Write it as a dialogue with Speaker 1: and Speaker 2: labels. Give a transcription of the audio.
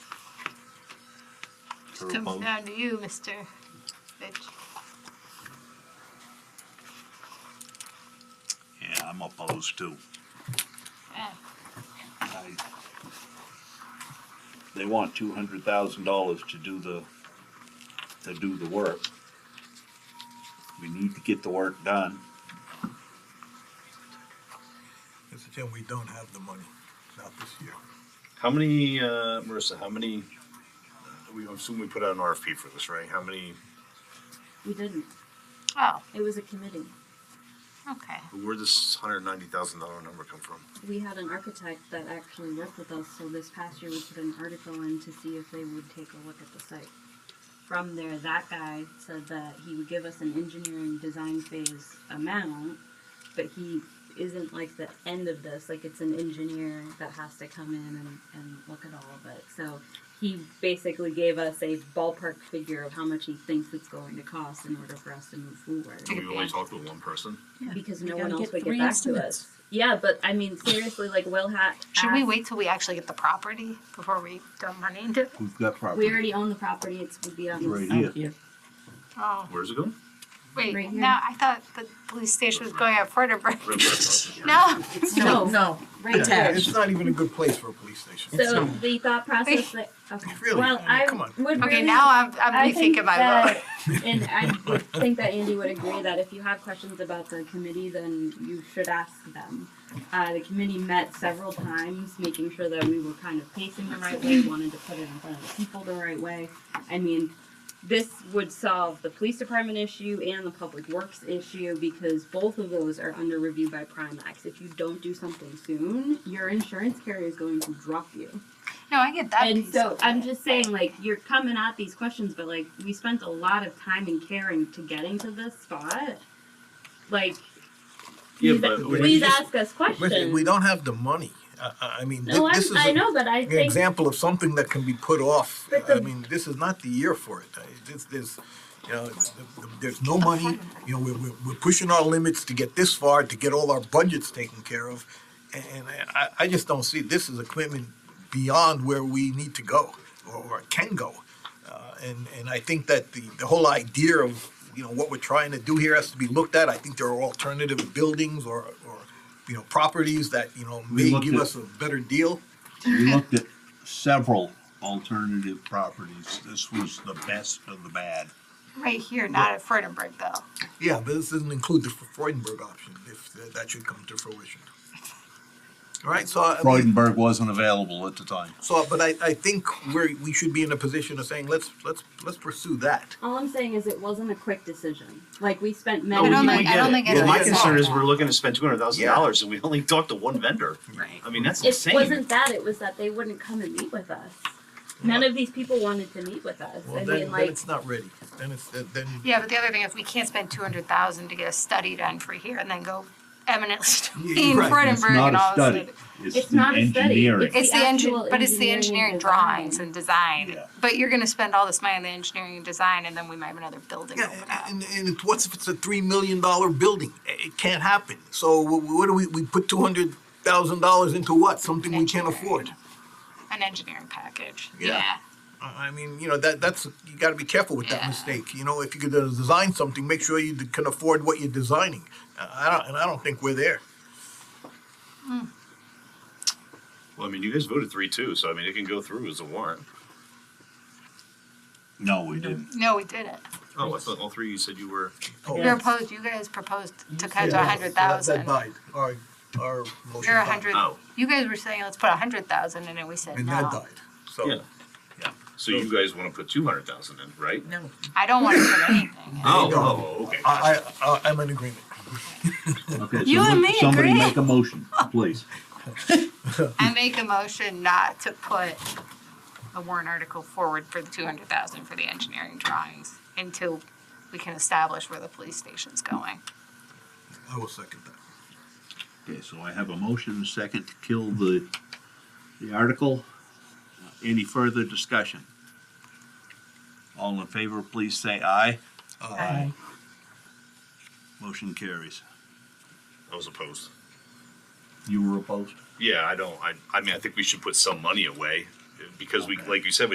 Speaker 1: or a
Speaker 2: Comes
Speaker 1: pump?
Speaker 2: down to you, Mr. Fitch.
Speaker 1: Yeah, I'm opposed too.
Speaker 2: Ah,
Speaker 1: I- They want two hundred thousand dollars to do the, to do the work. We need to get the work done.
Speaker 3: Mr. Chairman, we don't have the money, not this year.
Speaker 4: How many, uh, Marissa, how many, uh, we assume we put out an RFP for this, right? How many,
Speaker 5: We didn't.
Speaker 2: Oh,
Speaker 5: It was a committee.
Speaker 2: okay.
Speaker 4: where'd this hundred ninety thousand dollar number come from?
Speaker 5: We had an architect that actually worked with us, so this past year we put an article in to see if they would take a look at the site. From there, that guy said that he would give us an engineering design phase amount, but he isn't like the end of this, like it's an engineer that has to come in and, and look at all of it. So he basically gave us a ballpark figure of how much he thinks it's going to cost in order for us to move forward.
Speaker 4: And we only talked with one person?
Speaker 5: because
Speaker 6: We
Speaker 5: no one
Speaker 6: gotta
Speaker 5: else
Speaker 6: get
Speaker 5: would
Speaker 6: three
Speaker 5: get back to
Speaker 6: estimates.
Speaker 5: us. Yeah, but I mean, seriously, like Will had.
Speaker 2: Should we
Speaker 5: asked-
Speaker 2: wait till we actually get the property before we dump money into?
Speaker 3: We've got
Speaker 5: We
Speaker 3: property
Speaker 5: already own the property. It's would be on
Speaker 3: right
Speaker 5: the
Speaker 3: here.
Speaker 6: Here.
Speaker 2: Oh,
Speaker 4: Where's it going?
Speaker 2: wait,
Speaker 5: Right here.
Speaker 2: now, I thought the police station was going out further, but
Speaker 4: River.
Speaker 2: no.
Speaker 5: No,
Speaker 6: No.
Speaker 5: right
Speaker 6: Attached.
Speaker 3: It's not even a good place for a police station.
Speaker 5: So the thought process that okay.
Speaker 3: Really?
Speaker 5: Well, I
Speaker 3: Come on.
Speaker 5: would
Speaker 2: Okay,
Speaker 5: really-
Speaker 2: now I'm, I'm
Speaker 5: I think
Speaker 2: rethinking my vote.
Speaker 5: that- and I would think that Andy would agree that if you have questions about the committee, then you should ask them. Uh, the committee met several times, making sure that we were kind of pacing the right way, wanted to put it in front of the people the right way. I mean, this would solve the police department issue and the public works issue because both of those are under review by Primax. If you don't do something soon, your insurance carrier is going to drop you
Speaker 2: No, I get that
Speaker 5: and
Speaker 2: piece.
Speaker 5: so
Speaker 2: of
Speaker 5: I'm
Speaker 2: it.
Speaker 5: just saying, like, you're coming at these questions, but like, we spent a lot of time and caring to getting to this spot. Like,
Speaker 4: Yeah,
Speaker 5: please,
Speaker 4: but we-
Speaker 5: please ask us
Speaker 3: Listen,
Speaker 5: questions.
Speaker 3: we don't have the money. I- I, I mean,
Speaker 5: no,
Speaker 3: thi-
Speaker 5: I'm,
Speaker 3: this is
Speaker 5: I
Speaker 3: a-
Speaker 5: know, but I
Speaker 3: an
Speaker 5: think
Speaker 3: example of something that can be put off.
Speaker 5: But
Speaker 3: I
Speaker 5: the-
Speaker 3: mean, this is not the year for it. I- This, this, you know, th- th- there's no money. You know, we're, we're, we're pushing our limits to get this far, to get all our budgets taken care of. And, and I, I just don't see this as a commitment beyond where we need to go or, or can go. Uh, and, and I think that the, the whole idea of, you know, what we're trying to do here has to be looked at. I think there are alternative buildings or, or, you know, properties that, you know,
Speaker 1: We
Speaker 3: may
Speaker 1: looked
Speaker 3: give
Speaker 1: at-
Speaker 3: us a better deal.
Speaker 1: We looked at several alternative properties. This was the best of the bad.
Speaker 2: Right here, not at Furtenberg though.
Speaker 3: Yeah, but this doesn't include the Freudenberg option, if th- that should come to fruition. All right, so, I-
Speaker 1: Freudenberg wasn't available at the time.
Speaker 3: so, but I, I think we're, we should be in a position of saying, let's, let's, let's pursue that.
Speaker 5: all I'm saying is it wasn't a quick decision. Like, we spent
Speaker 4: No,
Speaker 5: many.
Speaker 4: we-
Speaker 2: I don't
Speaker 4: we
Speaker 2: think- I don't
Speaker 4: get it.
Speaker 2: think
Speaker 3: it's
Speaker 4: Well, my
Speaker 3: like that.
Speaker 4: concern is we're looking to spend two hundred thousand
Speaker 3: Yeah.
Speaker 4: dollars and we only talked to one vendor.
Speaker 2: Right.
Speaker 4: I mean, that's
Speaker 5: it
Speaker 4: insane.
Speaker 5: wasn't that. It was that they wouldn't come and meet with us. None of these people wanted to meet with us.
Speaker 3: Well,
Speaker 5: I
Speaker 3: then,
Speaker 5: mean,
Speaker 3: then
Speaker 5: like,
Speaker 3: it's not ready, then it's, then, then-
Speaker 2: Yeah, but the other thing is we can't spend two hundred thousand to get a study done for here and then go eminently
Speaker 3: Yeah,
Speaker 2: in
Speaker 3: right.
Speaker 1: It's
Speaker 2: Furtenberg
Speaker 1: not
Speaker 2: and
Speaker 1: a
Speaker 2: all
Speaker 1: study.
Speaker 2: this.
Speaker 5: It's not a study.
Speaker 1: engineering.
Speaker 2: It's the
Speaker 5: actual
Speaker 2: engine, but it's the engineering
Speaker 5: engineering and
Speaker 2: drawings
Speaker 5: design.
Speaker 2: and design.
Speaker 1: Yeah.
Speaker 2: But you're gonna spend all this money on the engineering and design and then we might have another building
Speaker 3: yeah,
Speaker 2: open up.
Speaker 3: and, and it's, what's if it's a three million dollar building? I- It can't happen, so wh- what do we, we put two hundred thousand dollars into what? Something we can't afford.
Speaker 2: An engineering package,
Speaker 3: Yeah.
Speaker 2: yeah.
Speaker 3: I I mean, you know, that, that's, you gotta be careful with that
Speaker 2: Yeah.
Speaker 3: mistake, you know, if you could uh, design something, make sure you d- can afford what you're designing. Uh, I don't, and I don't think we're there.
Speaker 4: Well, I mean, you guys voted three two, so I mean, it can go through as a warrant.
Speaker 1: No, we didn't.
Speaker 2: No, we didn't.
Speaker 4: Oh, I thought all three, you said you were,
Speaker 2: You
Speaker 3: Yeah.
Speaker 2: proposed, you guys proposed to cut
Speaker 3: Oh. Yeah,
Speaker 2: to a hundred
Speaker 3: That
Speaker 2: thousand.
Speaker 3: died, our, our motion
Speaker 2: You're a
Speaker 3: died.
Speaker 2: hundred,
Speaker 4: Oh.
Speaker 2: you guys were saying, let's put a hundred thousand in and we said
Speaker 3: And that
Speaker 2: no.
Speaker 3: died, so.
Speaker 4: Yeah. so you guys wanna put two hundred thousand in, right?
Speaker 6: No.
Speaker 2: I don't wanna put anything in.
Speaker 4: Oh,
Speaker 3: No.
Speaker 4: oh, okay.
Speaker 3: I, I- I, I'm in agreement.
Speaker 1: Okay, so
Speaker 2: You and
Speaker 1: what-
Speaker 2: me
Speaker 1: Somebody
Speaker 2: agree.
Speaker 1: make a motion, please.
Speaker 2: I make a motion not to put the warrant article forward for the two hundred thousand for the engineering drawings until we can establish where the police station's going.
Speaker 3: I will second that.
Speaker 1: Okay, so I have a motion and a second to kill the, the article. Uh, Any further discussion? All in favor, please say aye.
Speaker 3: Uh,
Speaker 2: Aye.
Speaker 1: Motion carries.
Speaker 4: I was opposed.
Speaker 1: You were opposed?
Speaker 4: Yeah, I don't, I, I mean, I think we should put some money away, because we, like you said,